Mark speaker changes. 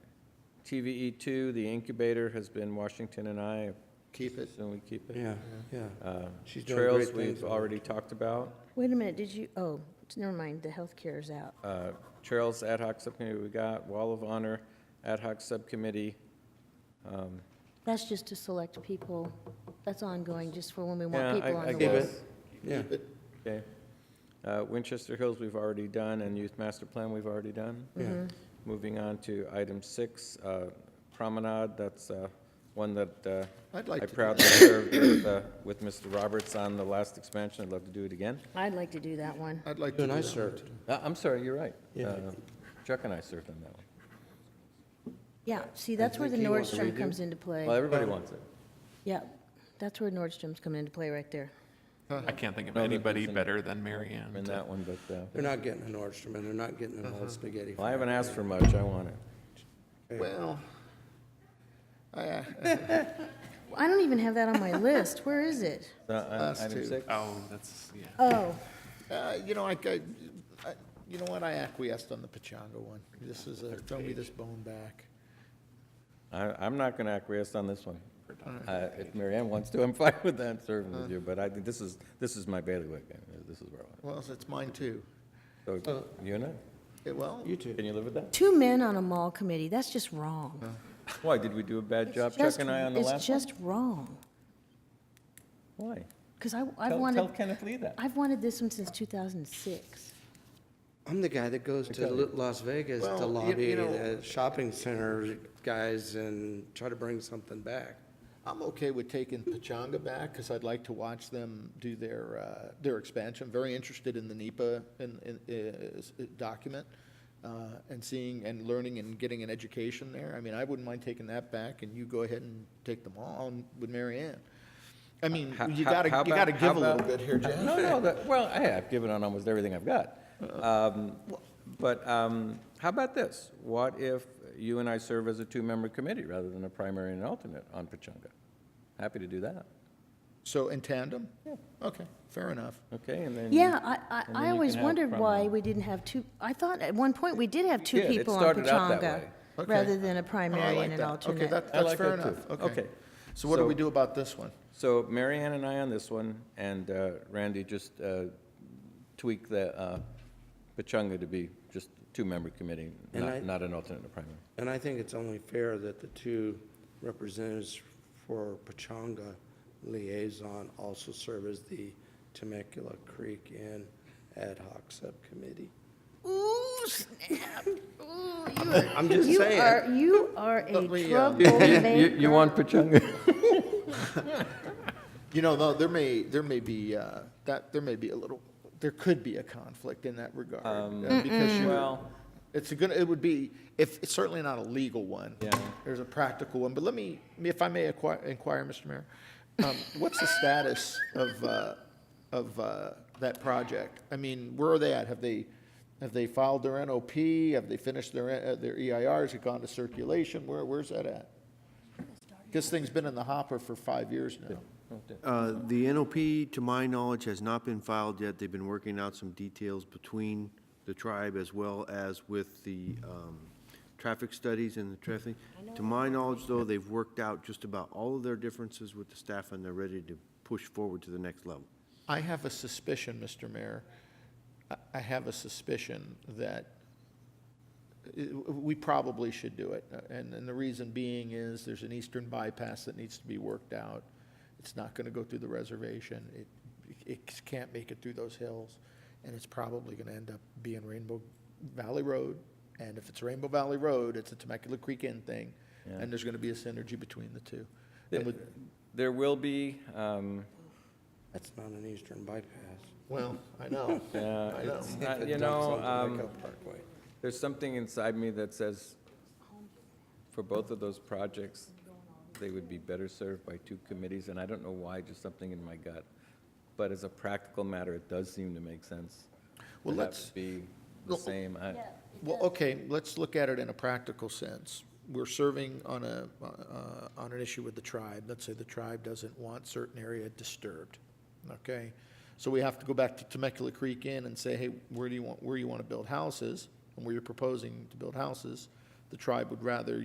Speaker 1: TVE E two, the incubator has been Washington and I,
Speaker 2: Keep it.
Speaker 1: so we keep it.
Speaker 3: Yeah, yeah.
Speaker 1: Uh,
Speaker 3: She's doing great
Speaker 1: Trails,
Speaker 3: things
Speaker 1: we've
Speaker 3: with it.
Speaker 1: already talked about.
Speaker 4: Wait a minute, did you, oh, never mind, the healthcare is out.
Speaker 1: Uh, Trails Ad hoc Subcommittee, we got Wall of Honor Ad hoc Subcommittee. Um,
Speaker 4: That's just to select people, that's ongoing, just for when we
Speaker 1: Yeah,
Speaker 4: want people
Speaker 1: I-
Speaker 4: on
Speaker 1: I
Speaker 4: the
Speaker 1: give
Speaker 4: list.
Speaker 1: it.
Speaker 3: Yeah,
Speaker 1: Okay. Uh, Winchester Hills, we've already done, and Youth Master Plan, we've already done.
Speaker 4: Mm-hmm.
Speaker 3: yeah.
Speaker 1: Moving on to item six, uh, Promenade, that's uh, one that uh,
Speaker 2: I'd
Speaker 1: I
Speaker 2: like to, do
Speaker 1: proudly served with, uh, with Mr. Roberts on the last expansion. I'd love to do it again.
Speaker 4: I'd like to do that one.
Speaker 2: that. I'd like
Speaker 3: You
Speaker 2: to
Speaker 3: and I
Speaker 2: do that.
Speaker 3: served.
Speaker 1: Uh, I'm sorry, you're right.
Speaker 3: Yeah.
Speaker 1: Uh, Chuck and I served on that one.
Speaker 4: Yeah, see, that's where the
Speaker 3: think he wants to
Speaker 4: Nordstrom
Speaker 3: redo.
Speaker 4: comes into play.
Speaker 1: Well, everybody wants it.
Speaker 4: Yeah, that's where Nordstrom's coming into play right there.
Speaker 5: I can't think of
Speaker 1: No, that
Speaker 5: anybody
Speaker 1: doesn't-
Speaker 5: better than Mary Ann.
Speaker 1: In
Speaker 5: to-
Speaker 1: that one, but, uh,
Speaker 3: They're not getting a Nordstrom, and they're not getting an old spaghetti.
Speaker 1: well, I haven't asked for much. I want it.
Speaker 2: Well, I, uh,
Speaker 4: I don't even have that on my list, where is it?
Speaker 1: Uh, uh,
Speaker 2: Us
Speaker 1: Item
Speaker 2: too.
Speaker 1: six.
Speaker 5: Oh, that's, yeah.
Speaker 4: Oh,
Speaker 2: Uh, You know, I, I- I- you know what, I acquiesced on the Pachanga one. This is a, throw me this bone back.
Speaker 1: I, I'm not going to acquiesce on this one. Uh, If Mary Ann wants to, I'm fine with that, serving with you, but I think this is, this is my bailiwick. uh, This is where I
Speaker 2: Well, it's mine too.
Speaker 1: want it. So, you and I,
Speaker 2: Yeah, Well,
Speaker 3: You too.
Speaker 1: can you live with that?
Speaker 4: two men on a mall committee, that's just wrong.
Speaker 1: Why, did we do a bad
Speaker 4: It's
Speaker 1: Uh, job, Chuck
Speaker 4: just-
Speaker 1: and I, on the
Speaker 4: It's
Speaker 1: last one?
Speaker 4: just wrong,
Speaker 1: Why?
Speaker 4: because I, I've
Speaker 1: Tell, tell
Speaker 4: wanted,
Speaker 1: Kenneth Lee that.
Speaker 4: I've wanted this one since 2006.
Speaker 3: I'm the guy that goes to
Speaker 1: tell you.
Speaker 3: Lu- Las Vegas
Speaker 2: Well,
Speaker 3: to
Speaker 2: you-
Speaker 3: lobby
Speaker 2: you know-
Speaker 3: the shopping center guys and try to bring something back.
Speaker 2: I'm okay with taking Pachanga back because I'd like to watch them do their, uh, their expansion. Very interested in the NEPA in, in, is- document uh, and seeing and learning and getting an education there. I mean, I wouldn't mind taking that back and you go ahead and take them all on with Mary Ann. I mean,
Speaker 1: How-
Speaker 2: you
Speaker 1: how-
Speaker 2: gotta,
Speaker 1: how
Speaker 2: you gotta
Speaker 1: about-
Speaker 2: give
Speaker 1: how
Speaker 2: a little
Speaker 1: about-
Speaker 2: bit here, Jeff.
Speaker 1: No, no, that, well, hey, I've given on almost everything I've got. Um, But um, how about this? What if you and I serve as a two-member committee rather than a primary and an alternate on Pachanga? Happy to do that,
Speaker 2: So in tandem? Yeah. Okay, fair enough.
Speaker 1: okay? And then you-
Speaker 4: Yeah, I,
Speaker 1: and then
Speaker 4: I, I
Speaker 1: you
Speaker 4: always
Speaker 1: can have
Speaker 4: wondered why
Speaker 1: Promenade.
Speaker 4: we didn't have two, I thought at one point we did have two
Speaker 1: did. It
Speaker 4: people on
Speaker 1: started out that
Speaker 4: Pachanga,
Speaker 1: way.
Speaker 2: Okay.
Speaker 4: rather than a
Speaker 2: Oh, I
Speaker 4: primary
Speaker 2: like
Speaker 4: and an
Speaker 2: that.
Speaker 4: alternate.
Speaker 2: Okay, that,
Speaker 1: I
Speaker 2: that's
Speaker 1: like
Speaker 2: fair
Speaker 1: that too.
Speaker 2: enough, okay.
Speaker 1: Okay.
Speaker 2: So what do we
Speaker 1: So-
Speaker 2: do about this one?
Speaker 1: So Mary Ann and I on this one, and uh, Randy just uh, tweak the uh, Pachanga to be just two-member committee,
Speaker 3: And I-
Speaker 1: not not an alternate or primary.
Speaker 3: And I think it's only fair that the two representatives for Pachanga liaison also serve as the Temecula Creek Inn ad hoc subcommittee.
Speaker 4: Ooh, snap. Ooh, you
Speaker 3: I'm
Speaker 4: are,
Speaker 3: just
Speaker 4: you
Speaker 3: saying.
Speaker 4: are, you are a
Speaker 2: Lovely, uh,
Speaker 4: troublemaker.
Speaker 1: want Pachanga?
Speaker 2: You know, though, there may, there may be, uh, that, there may be a little, there could be a conflict in that regard. uh, Because
Speaker 1: Um,
Speaker 2: you,
Speaker 1: Well,
Speaker 2: it's gonna, it would be, if, it's certainly not a legal one.
Speaker 1: Yeah.
Speaker 2: There's a practical one, but let me, if I may inquire, inquire, Mr. Mayor, um, what's the status of, uh, of, uh, that project? I mean, where are they at? Have they, have they filed their NOP? Have they finished their, uh, their EIR? Has it gone to circulation? Where, where's that at? This thing's been in the hopper for five years now.
Speaker 6: Uh, The NOP, to my knowledge, has not been filed yet. They've been working out some details between the tribe as well as with the um, traffic studies and the traffic. To my knowledge, though, they've worked out just about all of their differences with the staff, and they're ready to push forward to the next level.
Speaker 2: I have a suspicion, Mr. Mayor, I- I have a suspicion that uh, we probably should do it. Uh, And, and the reason being is there's an eastern bypass that needs to be worked out. It's not going to go through the reservation. It, it can't make it through those hills. And it's probably going to end up being Rainbow Valley Road. And if it's Rainbow Valley Road, it's a Temecula Creek Inn thing. And there's going to be a synergy between the two. And with,
Speaker 1: There will be, um,
Speaker 3: That's not an eastern bypass.
Speaker 2: well, I know.
Speaker 1: uh,
Speaker 2: know.
Speaker 1: it's
Speaker 3: If
Speaker 1: not-
Speaker 3: it
Speaker 1: you
Speaker 3: dumps
Speaker 1: know,
Speaker 3: onto
Speaker 1: um,
Speaker 3: Lake Elk Parkway.
Speaker 1: there's something inside me that says, for both of those projects, they would be better served by two committees, and I don't know why, just something in my gut. But as a practical matter, it does seem to make sense.
Speaker 2: Well,
Speaker 1: to have it
Speaker 2: let's-
Speaker 1: Be the
Speaker 2: Well,
Speaker 1: same. I-
Speaker 2: Well, okay, let's look at it in a practical sense. We're serving on a, uh, on an issue with the tribe. Let's say the tribe doesn't want certain area disturbed, okay? So we have to go back to Temecula Creek Inn and say, hey, where do you want, where you want to build houses? And where you're proposing to build houses, the tribe would rather